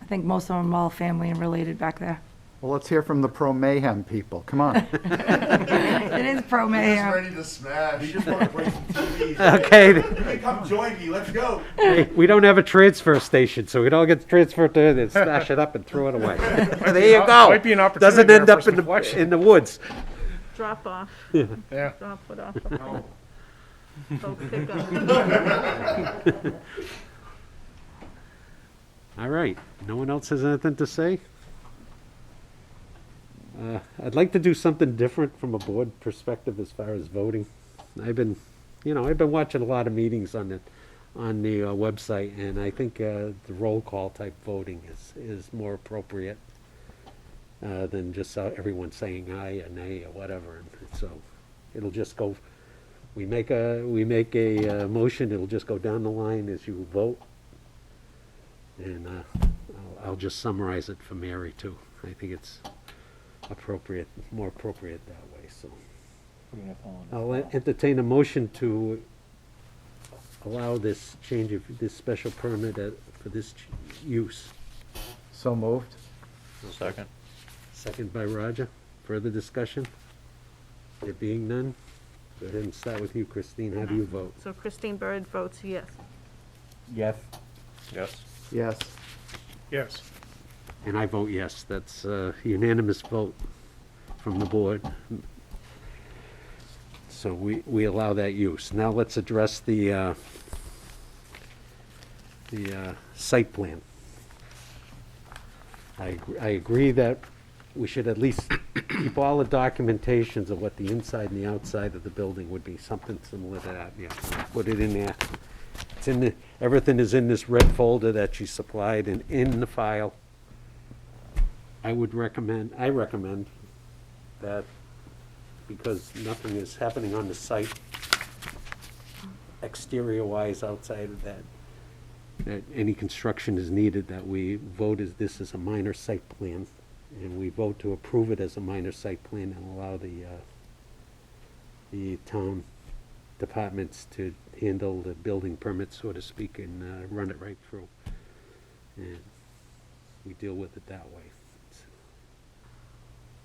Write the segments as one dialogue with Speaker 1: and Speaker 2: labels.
Speaker 1: I think most of them all family and related back there.
Speaker 2: Well, let's hear from the pro mayhem people. Come on.
Speaker 1: It is pro mayor.
Speaker 3: to smash. We just want to break some TVs.
Speaker 4: Okay,
Speaker 3: Come join me. Let's go.
Speaker 4: hey, we don't have a transfer station, so it all gets transferred to, they smash it up and throw it away. There you go.
Speaker 5: Might be an opportunity
Speaker 4: Doesn't
Speaker 5: there
Speaker 4: end
Speaker 5: for
Speaker 4: up
Speaker 5: some
Speaker 4: in the,
Speaker 5: collection.
Speaker 4: in the woods.
Speaker 6: Drop off,
Speaker 5: Yeah.
Speaker 6: drop it off,
Speaker 3: No.
Speaker 6: so pick up.
Speaker 4: All right, no one else has anything to say? Uh, I'd like to do something different from a board perspective as far as voting. I've been, you know, I've been watching a lot of meetings on the, on the uh, website, and I think uh, the roll call type voting is, is more appropriate uh, than just uh, everyone saying aye or nay or whatever. And So it'll just go, we make a, we make a uh, motion, it'll just go down the line as you vote, and uh, I'll- I'll just summarize it for Mary, too. I think it's appropriate, more appropriate that way, so. I'll en- entertain a motion to allow this change of, this special permit at- for this ch- use.
Speaker 2: So moved.
Speaker 7: Second.
Speaker 4: Second by Roger. Further discussion? There being none, go ahead and start with you, Christine. How do you vote?
Speaker 6: So Christine Bird votes yes.
Speaker 4: Yes.
Speaker 7: Yes.
Speaker 2: Yes.
Speaker 5: Yes.
Speaker 4: And I vote yes. That's a unanimous vote from the board. So we, we allow that use. Now let's address the, uh, the uh, site plan. I, agr- I agree that we should at least keep all the documentations of what the inside and the outside of the building would be, something similar to that, yeah. Put it in there. It's in the, everything is in this red folder that you supplied and in the file. I would recommend, I recommend that, because nothing is happening on the site exterior-wise outside of that, that any construction is needed, that we vote as this is a minor site plan, and we vote to approve it as a minor site plan and allow the, uh, the town departments to handle the building permits, so to speak, and, uh, run it right through. And we deal with it that way.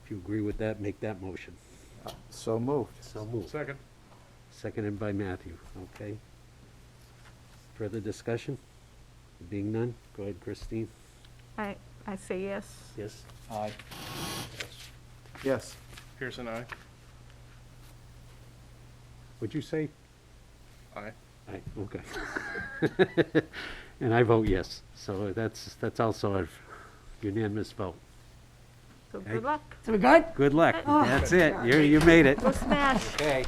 Speaker 4: If you agree with that, make that motion.
Speaker 2: So moved.
Speaker 4: So moved.
Speaker 5: Second.
Speaker 4: Seconded by Matthew, okay? Further discussion? Being none, go ahead, Christine.
Speaker 6: I, I say yes.
Speaker 4: Yes.
Speaker 7: Aye.
Speaker 2: Yes.
Speaker 5: Pearson, aye.
Speaker 4: Would you say?
Speaker 5: Aye.
Speaker 4: Aye, okay. And I vote yes, so that's, that's also a unanimous vote.
Speaker 6: So
Speaker 4: Okay.
Speaker 6: good luck.
Speaker 1: So we good?
Speaker 4: Good luck,
Speaker 1: Oh,
Speaker 4: that's it, you, you made it.
Speaker 6: Go smash.
Speaker 4: Okay,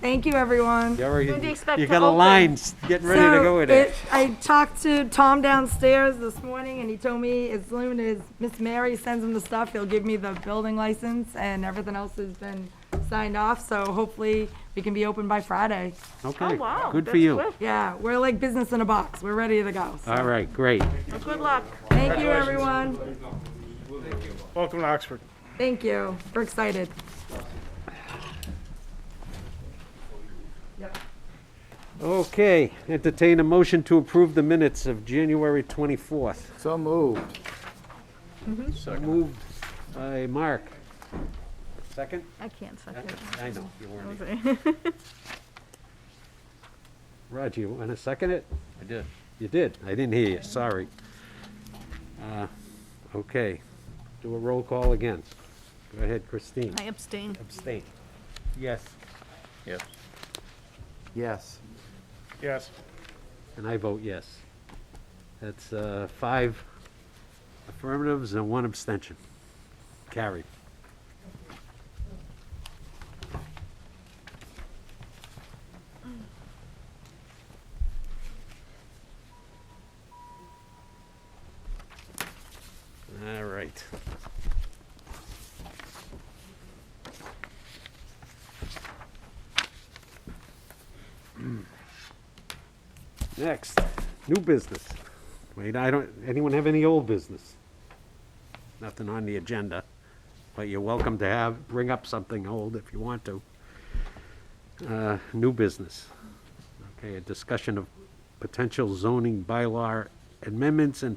Speaker 1: Thank you, everyone.
Speaker 4: you already,
Speaker 6: When do you expect
Speaker 4: you
Speaker 6: to
Speaker 4: got a
Speaker 6: open?
Speaker 4: line s- getting ready to
Speaker 1: So,
Speaker 4: go in it.
Speaker 1: it- I talked to Tom downstairs this morning, and he told me as soon as Miss Mary sends him the stuff, he'll give me the building license, and everything else has been signed off, so hopefully we can be open by Friday.
Speaker 4: Okay,
Speaker 6: Oh, wow,
Speaker 4: good for
Speaker 6: that's
Speaker 4: you.
Speaker 6: quick.
Speaker 1: Yeah, we're like business in a box. We're ready to go. So,
Speaker 4: All right, great.
Speaker 6: Well, Good luck.
Speaker 1: Thank you, everyone.
Speaker 5: Welcome to Oxford.
Speaker 1: Thank you. We're excited.
Speaker 4: Okay, entertain a motion to approve the minutes of January 24th.
Speaker 2: So moved.
Speaker 4: Moved by Mark. Second?
Speaker 6: I can't second.
Speaker 4: I know, you weren't. here.
Speaker 6: Okay.
Speaker 4: Roger, you want to second it?
Speaker 7: I did.
Speaker 4: You did. I didn't hear you, sorry. Uh, Okay, do a roll call again. Go ahead, Christine.
Speaker 6: I abstain.
Speaker 4: Abstain. Yes.
Speaker 7: Yes.
Speaker 2: Yes.
Speaker 5: Yes.
Speaker 4: And I vote yes. That's uh, five affirmatives and one abstention. Carried. All right. Next, new business. Wait, I don't, anyone have any old business? Nothing on the agenda, but you're welcome to have, bring up something old if you want to. Uh, New business. Okay, a discussion of potential zoning bylaw amendments and